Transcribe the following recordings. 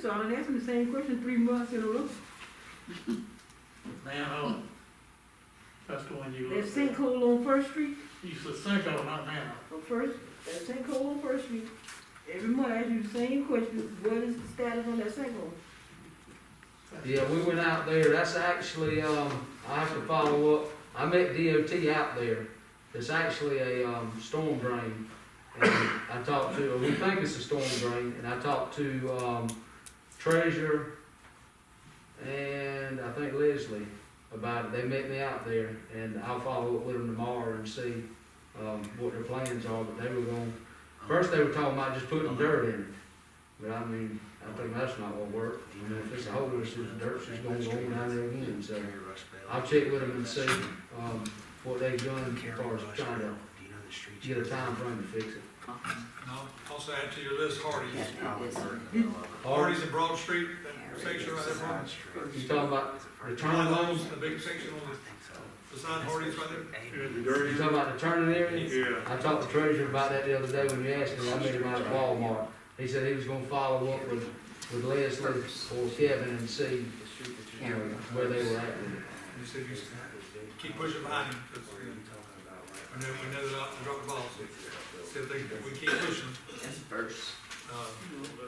so I done asked him the same question three months in a row. manhole. oh. That's the one you That look at. sinkhole on First Street, You said sinkhole, not manhole. on First, that sinkhole on First Street, every month I ask you the same question, what is the status on that sinkhole? Yeah, we went out there, that's actually, um, I have to follow up, I met DOT out there, it's actually a, um, storm drain. And I talked to, we think it's a storm drain, and I talked to, um, Treasurer and I think Leslie about it, they met me out there, and I'll follow up with them tomorrow and see, um, what their plans are, but they were going, first they were talking about just putting dirt in it, but I mean, I think that's not gonna work. I mean, if it's a hole, it's just dirt, it's gonna go on down there again, so I'll check with them and see, um, what they've done as far as trying to get a time frame to fix it. No, also add to your list Hardee's. Or, Hardee's and Broad Street, that section right there, Broad. you talking about the turning lanes, The big section on the, beside Hardee's right there. you talking about the turning areas? Yeah. I talked to Treasurer about that the other day when you asked him, I met him out at Walmart, he said he was gonna follow up with, with Leslie or Kevin and see, you know, where they were at with it. You said you keep pushing behind him, 'cause, you know, and then we know that I drop the balls. So they, we keep pushing. That's first. Uh,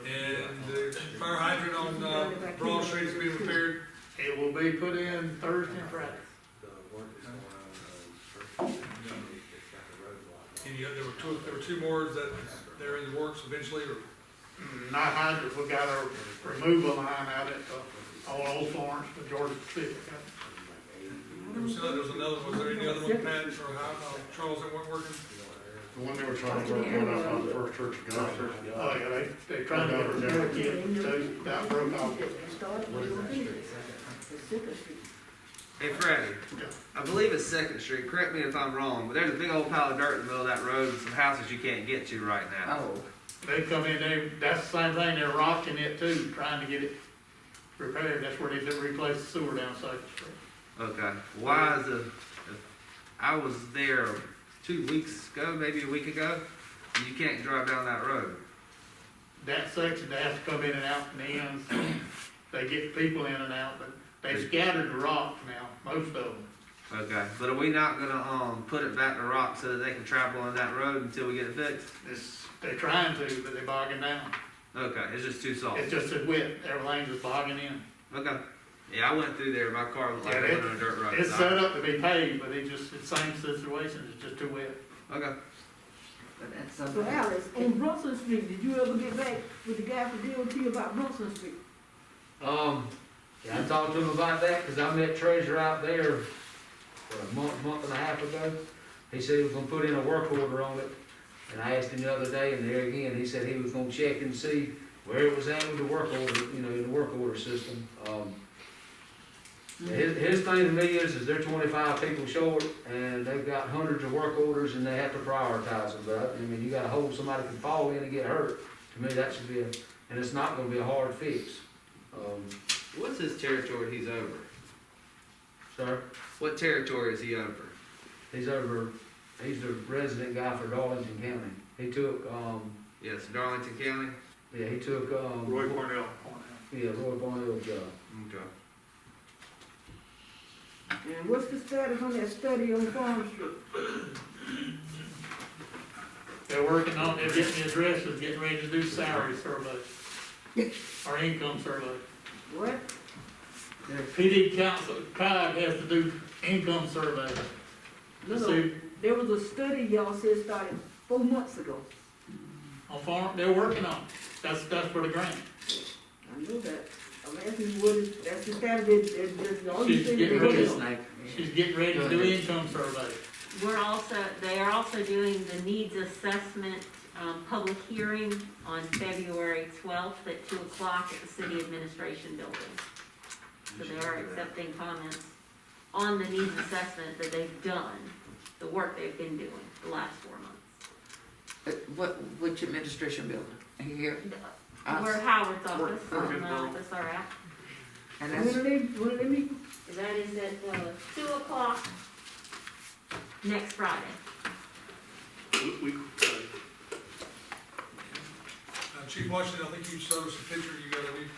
And the fire hydrant on, uh, Broad Street is being repaired. It will be put in Thursday and Friday. And you, there were two, there were two more that they're in the works eventually, or Not hydrants, we got a removal line out at, uh, all Old Florence, the Georgia Pacific. there was another, there was another, was there any other one, Pat, or how, uh, Charles, that weren't working? The one they were trying to work on up on the first church of God. Oh, yeah, they, they trying to get a repair kit, so that broke off. Start, What is that finish street? it. That's Second Street. Hey Freddie, Yeah. I believe it's Second Street, correct me if I'm wrong, but there's a big old pile of dirt in the middle of that road and some houses you can't get to right now. Oh. They come in, they, that's the same thing, they're rocking it too, trying to get it repaired, that's where they did replace the sewer down Second Street. Okay, why is the, I was there two weeks ago, maybe a week ago, and you can't drive down that road. That section, they have to come in and out from the ends, they get people in and out, but they scattered the rock now, most of them. Okay, but are we not gonna, um, put it back to rock so that they can travel on that road until we get it fixed? It's, they're trying to, but they're bogging down. Okay, it's just too soft. It's just a wet, everything's just bogging in. Okay. Yeah, I went through there, my car looked like Yeah, it it- went on a dirt road. It's set up to be paved, but it just, it's same situation, it's just too wet. Okay. But that's So something. Alex, on Brunson Street, did you ever get back with the guy from DOT about Brunson Street? Um, yeah, I talked to him about that, cause I met Treasure out there, what, a month, month and a half ago. He said he was gonna put in a work order on it, and I asked him the other day, and there again, he said he was gonna check and see where it was at with the work order, you know, the work order system, um. His, his thing to me is, is they're twenty-five people short, and they've got hundreds of work orders, and they have to prioritize them, but, I mean, you got a hole somebody can fall in and get hurt. To me, that should be a, and it's not gonna be a hard fix, um. What's his territory he's over? Sir, What territory is he over? he's over, he's the resident guy for Darlington County. He took, um, Yes, Darlington County? yeah, he took, um. Roy Cornell. Yeah, Roy Barnell's job. Okay. And what's the status on that study on Farm Street? They're working on, they're getting the addresses, getting ready to do salary survey, or income survey. What? PD council, COG has to do income survey. No, Let's no, see, there was a study y'all said started four months ago. on farm, they're working on it, that's, that's for the grant. I know that. I'm asking you what is, that's the status, that, that, that's all you She's said. getting that- uh, ready. It's like, She's getting ready to do income survey. We're also, they are also doing the needs assessment, um, public hearing on February twelfth at two o'clock at the city administration building. So they are accepting comments on the needs assessment that they've done, the work they've been doing the last four months. uh, what, which administration building? Here, We're us, Howard's office, We're- I'm the office, all right? and When that's, do they, when do they meet? That is at, uh, two o'clock next Friday. We, we, uh, Uh, Chief Washington, I think you showed us a picture, you got a new